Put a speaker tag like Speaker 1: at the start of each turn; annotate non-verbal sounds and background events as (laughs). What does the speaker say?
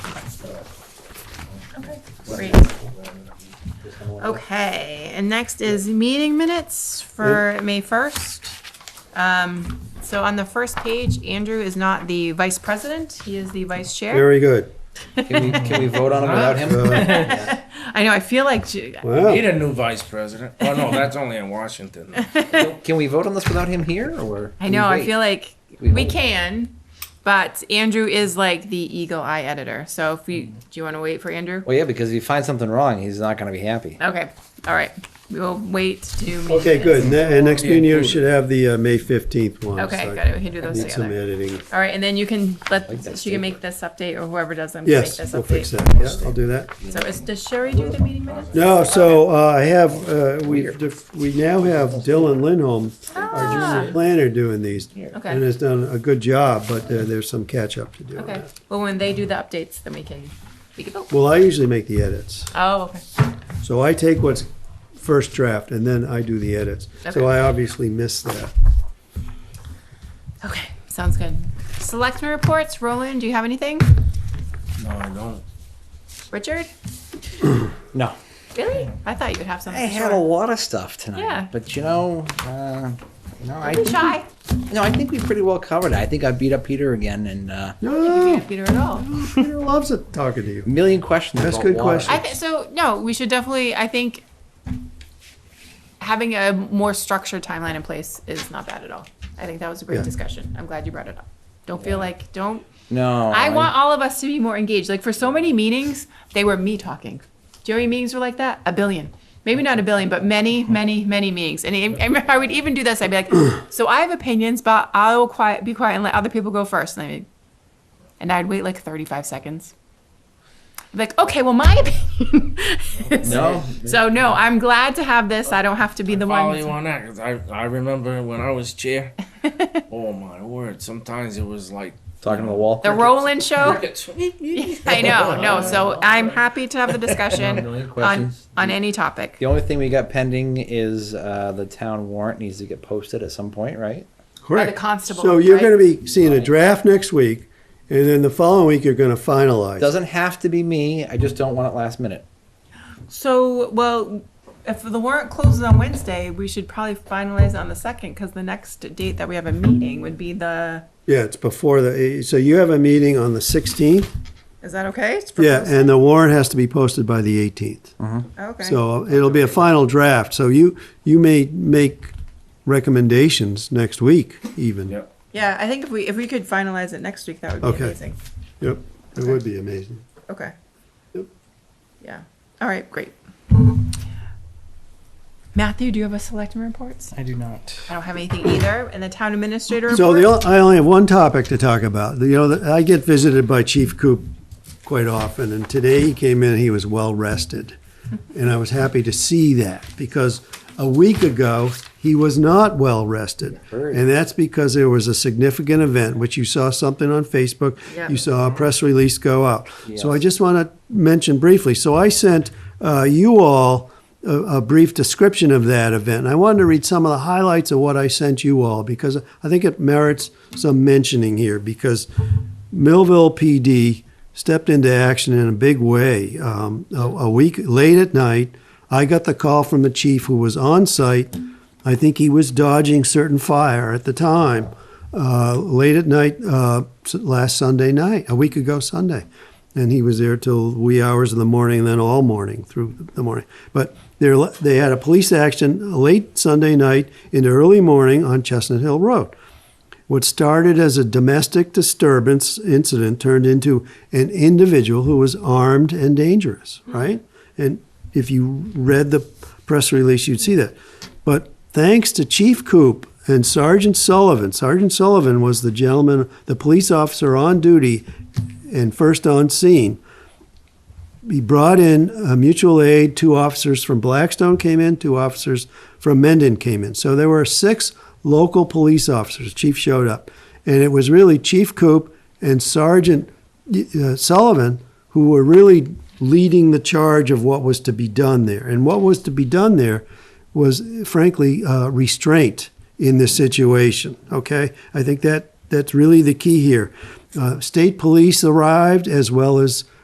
Speaker 1: Great.
Speaker 2: Okay.
Speaker 1: Okay, and next is meeting minutes for May 1st. Um, So on the first page, Andrew is not the vice president, he is the vice chair. (laughs)
Speaker 2: Very good.
Speaker 3: Can we, can we vote on him without him?
Speaker 2: Uh,
Speaker 1: I know, I feel like, j-
Speaker 4: Need
Speaker 2: Well,
Speaker 4: a new vice president. Oh no, that's only in
Speaker 1: (laughs)
Speaker 4: Washington.
Speaker 3: Can we vote on this without him here, or? where-
Speaker 1: I
Speaker 3: can we
Speaker 1: know, I
Speaker 3: wait?
Speaker 1: feel like
Speaker 3: We
Speaker 1: we
Speaker 3: hold.
Speaker 1: can, but Andrew is like the eagle eye editor, so if we, do you want to wait for Andrew?
Speaker 3: Well, yeah, because if he finds something wrong, he's not gonna be happy.
Speaker 1: Okay, all right, we will wait to do. meeting
Speaker 2: okay,
Speaker 1: minutes.
Speaker 2: good. And that- and next meeting you
Speaker 4: Yeah,
Speaker 2: should have the uh, May 15th one.
Speaker 1: Okay,
Speaker 2: So I
Speaker 1: good, we can do those
Speaker 2: Need some
Speaker 1: together.
Speaker 2: editing.
Speaker 1: All right, and then you can
Speaker 3: Like that
Speaker 1: let, she
Speaker 3: paper.
Speaker 1: can make this update, or whoever does them. can make
Speaker 2: Yes,
Speaker 1: this
Speaker 2: we'll fix
Speaker 1: update.
Speaker 2: that. Yeah, I'll do that.
Speaker 1: So is, does Sherry do the meeting minutes?
Speaker 2: No, so uh, I have, uh, we, we now have Dylan Lindholm, our junior planner, doing these. And
Speaker 1: Ah. Okay,
Speaker 2: has done a good job, but there- there's some catch-up to do. on
Speaker 1: okay.
Speaker 2: that.
Speaker 1: Well, when they do the updates, then we can, we can vote.
Speaker 2: Well, I usually make the edits.
Speaker 1: Oh, okay.
Speaker 2: So I take what's first draft and then I do the edits.
Speaker 1: Okay.
Speaker 2: So I obviously missed that.
Speaker 1: Okay, sounds good. Selectmen reports, Roland, do you have anything?
Speaker 4: No, I don't.
Speaker 1: Richard?
Speaker 3: No.
Speaker 1: Really? I thought you would have something.
Speaker 3: I had a
Speaker 1: Sure.
Speaker 3: lot of stuff tonight.
Speaker 1: Yeah.
Speaker 3: But you know, uh, no, I
Speaker 1: You're
Speaker 3: think,
Speaker 1: shy.
Speaker 3: no, I think we pretty well covered it. I think I beat up Peter again, and uh,
Speaker 1: You
Speaker 2: No,
Speaker 1: have Peter at all.
Speaker 2: Peter loves it, talking to you.
Speaker 3: a million questions.
Speaker 2: That's
Speaker 3: about
Speaker 2: good
Speaker 3: water.
Speaker 2: question.
Speaker 1: I think, so, no, we should definitely, I think having a more structured timeline in place is not bad at all. I think that was a great
Speaker 2: Yeah.
Speaker 1: discussion. I'm glad you brought it up. Don't feel like, don't,
Speaker 3: No,
Speaker 1: I want all of us to be more engaged. Like for so many meetings, they were me talking. Do you know how many meetings were like that? A billion. Maybe not a billion, but many, many, many meetings. And I, I remember I would even do this. I'd be like, so I have opinions, but I will quiet, be quiet and let other people go first. And, I'd, and I'd wait like 35 seconds. I'd be like, okay, well, my (laughs) opinion. is-"
Speaker 3: No.
Speaker 1: So, no, I'm glad to have this. I don't have to be the
Speaker 4: Follow
Speaker 1: one.
Speaker 4: you on that 'cause I I remember when I
Speaker 1: (laughs)
Speaker 4: was chair. oh my word! Sometimes it was like
Speaker 3: talking to the wall.
Speaker 1: The Roland show.
Speaker 4: crickets.
Speaker 1: (laughs) I know, no. So I'm happy to have the discussion
Speaker 3: million
Speaker 1: on,
Speaker 3: questions.
Speaker 1: on any topic.
Speaker 3: The only thing we got pending is uh, the town warrant needs to get posted at some point, right?
Speaker 1: By the constable.
Speaker 2: So you're
Speaker 1: right?
Speaker 2: gonna be seeing a draft next week and then the following week you're gonna finalize.
Speaker 3: Doesn't have to be me. I just don't want it last minute.
Speaker 1: So, well, if the warrant closes on Wednesday, we should probably finalize on the second, because the next date that we have a meeting would be the,
Speaker 2: Yeah, it's before the, so you have a meeting on the 16th?
Speaker 1: is that okay? It's
Speaker 2: Yeah,
Speaker 1: proposed?
Speaker 2: and the warrant has to be posted by the 18th.
Speaker 1: Okay.
Speaker 2: So it'll be a final draft, so you, you may make recommendations next week even.
Speaker 4: Yep.
Speaker 1: Yeah, I think if we, if we could finalize it next week, that would be
Speaker 2: Okay.
Speaker 1: amazing.
Speaker 2: Yep, it would be amazing.
Speaker 1: Okay.
Speaker 2: Yep.
Speaker 1: Yeah, all right, great. Matthew, do you have a selectman reports?
Speaker 5: I do not.
Speaker 1: I don't have anything either, and the town administrator
Speaker 2: So the,
Speaker 1: report?
Speaker 2: on- I only have one topic to talk about. You know, that- I get visited by Chief Coop quite often, and today he came in, he was well-rested. And I was happy to see that, because a week ago, he was not well-rested.
Speaker 3: Heard.
Speaker 2: And that's because there was a significant event, which you saw something on Facebook.
Speaker 1: Yeah.
Speaker 2: You saw a press release go out. So I
Speaker 3: Yes.
Speaker 2: just want to mention briefly, so I sent uh, you all a, a brief description of that event. I wanted to read some of the highlights of what I sent you all because I think it merits some mentioning here because Millville PD stepped into action in a big way. Um, a, a week late at night, I got the call from the chief who was on site. I think he was dodging certain fire at the time. Uh, late at night, uh, s- last Sunday night, a week ago Sunday, and he was there till wee hours of the morning, and then all morning through the morning. But there, they had a police action late Sunday night into early morning on Chestnut Hill Road. What started as a domestic disturbance incident turned into an individual who was armed and dangerous, right? And if you read the press release, you'd see that. But thanks to Chief Coop and Sergeant Sullivan, Sergeant Sullivan was the gentleman, the police officer on duty and first on scene he brought in a mutual aid. Two officers from Blackstone came in. Two officers from Mendon came in. So there were six local police officers. Chief showed up, and it was really Chief Coop and Sergeant uh, Sullivan who were really leading the charge of what was to be done there. And what was to be done there was, frankly, uh, restraint in this situation. Okay, I think that that's really the key here. Uh, state police arrived as well as